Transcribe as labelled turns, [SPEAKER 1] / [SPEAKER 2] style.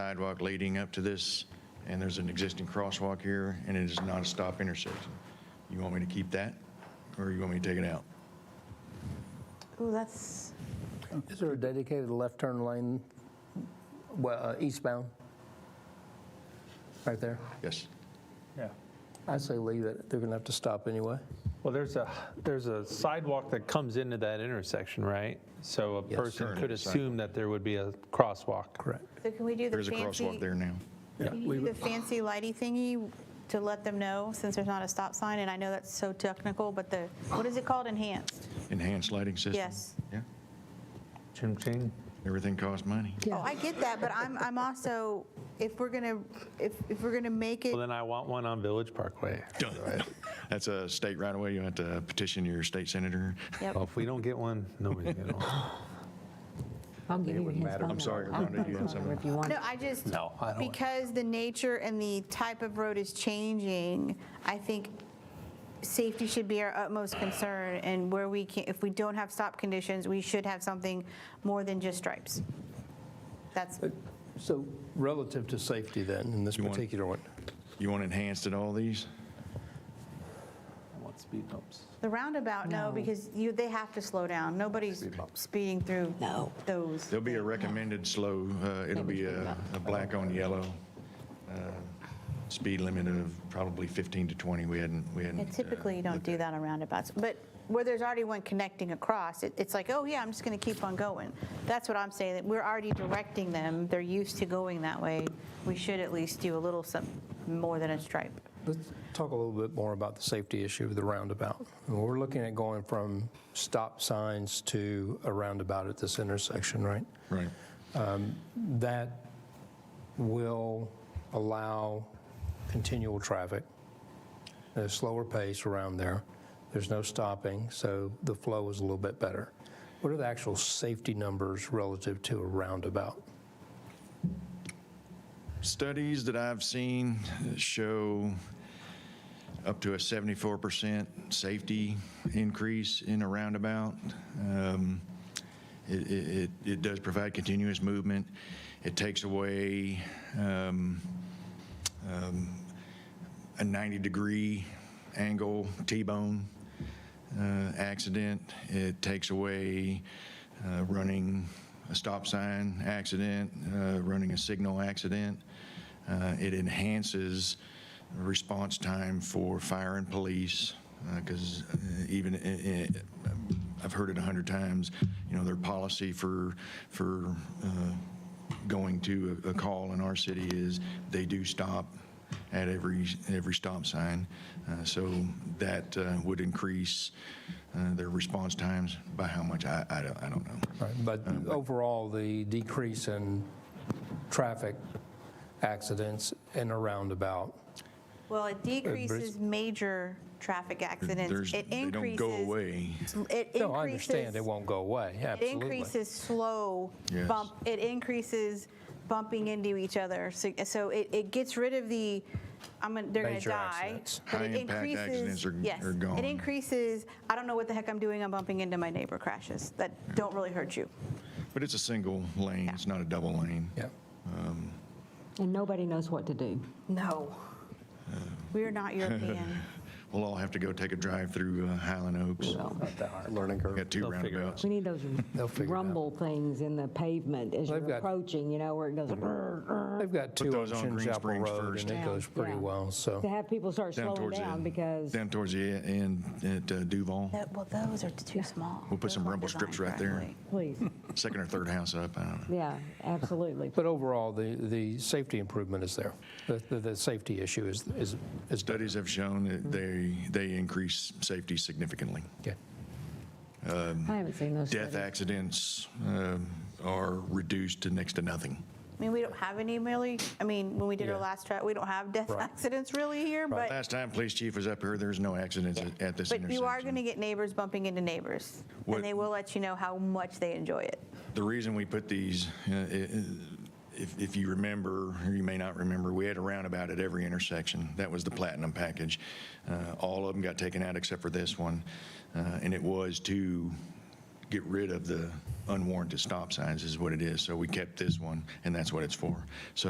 [SPEAKER 1] sidewalk leading up to this, and there's an existing crosswalk here, and it is not a stop intersection. You want me to keep that, or you want me to take it out?
[SPEAKER 2] Ooh, that's,
[SPEAKER 3] Is there a dedicated left turn lane well, uh, eastbound? Right there?
[SPEAKER 1] Yes.
[SPEAKER 4] Yeah.
[SPEAKER 3] I say leave it. They're going to have to stop anyway.
[SPEAKER 4] Well, there's a, there's a sidewalk that comes into that intersection, right? So a person
[SPEAKER 1] Current
[SPEAKER 4] could
[SPEAKER 1] sidewalk.
[SPEAKER 4] assume that there would be a crosswalk.
[SPEAKER 3] Correct.
[SPEAKER 2] so can we do
[SPEAKER 1] There
[SPEAKER 2] the
[SPEAKER 1] is a
[SPEAKER 2] fancy,
[SPEAKER 1] crosswalk there now.
[SPEAKER 2] can you do the fancy lighty thingy to let them know, since there's not a stop sign, and I know that's so technical, but the, what is it called, enhanced?
[SPEAKER 1] Enhanced lighting system?
[SPEAKER 2] Yes.
[SPEAKER 1] Yeah.
[SPEAKER 4] Ching, ching.
[SPEAKER 1] Everything costs money.
[SPEAKER 2] Oh, I get that, but I'm, I'm also, if we're gonna, if, if we're gonna make it,
[SPEAKER 4] Well, then I want one on Village Parkway.
[SPEAKER 1] Done. That's a state right away. You have to petition your state senator.
[SPEAKER 2] yep,
[SPEAKER 4] Well, if we don't get one, nobody's getting one.
[SPEAKER 5] I'm giving you his phone
[SPEAKER 1] I'm sorry,
[SPEAKER 5] number. I'll
[SPEAKER 1] Rhonda, you
[SPEAKER 5] phone
[SPEAKER 1] had
[SPEAKER 5] his number
[SPEAKER 1] something?
[SPEAKER 5] If you want,
[SPEAKER 2] no, I just.
[SPEAKER 4] No, I don't want-
[SPEAKER 2] Because the nature and the type of road is changing, I think safety should be our utmost concern, and where we can, if we don't have stop conditions, we should have something more than just stripes. That's,
[SPEAKER 3] So relative to safety then, in this
[SPEAKER 1] You want-
[SPEAKER 3] particular one,
[SPEAKER 1] You want enhanced at all these?
[SPEAKER 4] I want speed bumps.
[SPEAKER 2] the roundabout, no,
[SPEAKER 5] No.
[SPEAKER 2] because you, they have to slow down. Nobody's speeding through
[SPEAKER 5] No.
[SPEAKER 2] those.
[SPEAKER 1] There'll be a recommended slow, uh, it'll be a a black on yellow, uh, speed limit of probably 15 to 20. We hadn't, we hadn't.
[SPEAKER 2] And
[SPEAKER 1] uh,
[SPEAKER 2] typically, you don't
[SPEAKER 1] looked
[SPEAKER 2] do
[SPEAKER 1] at-
[SPEAKER 2] that on roundabouts, but where there's already one connecting across, it- it's like, oh, yeah, I'm just going to keep on going. That's what I'm saying, that we're already directing them, they're used to going that way. We should at least do a little some, more than a stripe.
[SPEAKER 3] let's talk a little bit more about the safety issue of the roundabout. We're looking at going from stop signs to a roundabout at this intersection, right?
[SPEAKER 1] uh, Right.
[SPEAKER 3] that will allow continual traffic at a slower pace around there. There's no stopping, so the flow is a little bit better. What are the actual safety numbers relative to a roundabout?
[SPEAKER 1] Studies that I've seen show up to a 74% safety increase in a roundabout. Um, It, it- it, it does provide continuous movement. It takes away um, um, a 90-degree angle T-bone uh, accident. It takes away uh, running a stop sign accident, uh, running a signal accident. Uh, It enhances response time for fire and police, because even, i- i- I've heard it a hundred times, you know, their policy for, for uh, going to a a call in our city is they do stop at every, every stop sign. Uh, So that uh, would increase uh, their response times by how much, I, I don't, I don't know.
[SPEAKER 3] Right, But overall, the decrease in traffic accidents in a roundabout,
[SPEAKER 2] Well, it decreases major traffic
[SPEAKER 1] There's-
[SPEAKER 2] accidents. It
[SPEAKER 1] They don't go
[SPEAKER 2] increases-
[SPEAKER 1] away.
[SPEAKER 2] It increases.
[SPEAKER 3] no, I understand it won't go away,
[SPEAKER 2] It
[SPEAKER 3] absolutely.
[SPEAKER 2] increases slow
[SPEAKER 1] Yes.
[SPEAKER 2] bump, it increases bumping into each other. So so it, it gets rid of the, I'm, gonna- they're going to
[SPEAKER 3] Major
[SPEAKER 2] die.
[SPEAKER 3] accidents.
[SPEAKER 2] but it
[SPEAKER 1] High-impact
[SPEAKER 2] increases-
[SPEAKER 1] accidents are-
[SPEAKER 2] yes,
[SPEAKER 1] are gone.
[SPEAKER 2] It increases, I don't know what the heck I'm doing, I'm bumping into my neighbor crashes that don't really hurt you.
[SPEAKER 1] But it's a single lane, it's not a double lane.
[SPEAKER 3] Yeah.
[SPEAKER 5] and nobody knows what to do.
[SPEAKER 2] No. We are not European.
[SPEAKER 1] We'll all have to go take a drive through uh, Highland Oaks.
[SPEAKER 5] Well,
[SPEAKER 3] Learning curve.
[SPEAKER 1] Got two
[SPEAKER 4] They'll figure it out.
[SPEAKER 1] roundabouts.
[SPEAKER 5] We need those
[SPEAKER 3] figure it out.
[SPEAKER 5] rumble things in the pavement as
[SPEAKER 3] They've
[SPEAKER 5] you're
[SPEAKER 3] got-
[SPEAKER 5] approaching, you know, where it goes. "Rrr, rrr."
[SPEAKER 3] They've got two on
[SPEAKER 1] those on
[SPEAKER 3] Chin
[SPEAKER 1] Green
[SPEAKER 3] Chapel
[SPEAKER 1] Springs
[SPEAKER 3] Road, and
[SPEAKER 1] first.
[SPEAKER 3] it
[SPEAKER 5] Yeah,
[SPEAKER 3] goes pretty
[SPEAKER 5] yeah.
[SPEAKER 3] well, so.
[SPEAKER 5] To have people start
[SPEAKER 1] Down
[SPEAKER 5] slowing
[SPEAKER 1] towards the
[SPEAKER 5] down
[SPEAKER 1] end.
[SPEAKER 5] because
[SPEAKER 1] Down towards the e-, end at uh, Duval.
[SPEAKER 2] That- Well, those are too small.
[SPEAKER 1] We'll put
[SPEAKER 2] Those
[SPEAKER 1] some
[SPEAKER 2] weren't
[SPEAKER 1] rumble strips
[SPEAKER 2] designed
[SPEAKER 1] right there.
[SPEAKER 2] correctly.
[SPEAKER 5] Please,
[SPEAKER 1] second or third house up. I don't know.
[SPEAKER 5] yeah, absolutely.
[SPEAKER 3] But overall, the, the safety improvement is there. The, the, the safety issue is, is, is done.
[SPEAKER 1] Studies have shown that they, they increase safety significantly.
[SPEAKER 3] Okay.
[SPEAKER 5] I haven't seen those
[SPEAKER 1] Death
[SPEAKER 5] studies.
[SPEAKER 1] accidents um, are reduced to next to nothing.
[SPEAKER 2] I mean, we don't have any really, I mean, when we did our
[SPEAKER 3] Yeah.
[SPEAKER 2] last track, we don't have death
[SPEAKER 3] Right.
[SPEAKER 2] accidents really here, but.
[SPEAKER 1] Last time police chief was up here, there was no accidents at- at this intersection.
[SPEAKER 2] But you are going to get neighbors bumping into neighbors,
[SPEAKER 1] What-
[SPEAKER 2] and they will let you know how much they enjoy it.
[SPEAKER 1] The reason we put these, uh, i- if, if you remember, or you may not remember, we had a roundabout at every intersection. That was the platinum package. Uh, All of them got taken out except for this one, uh, and it was to get rid of the unwarranted stop signs is what it is. So we kept this one, and that's what it's for. So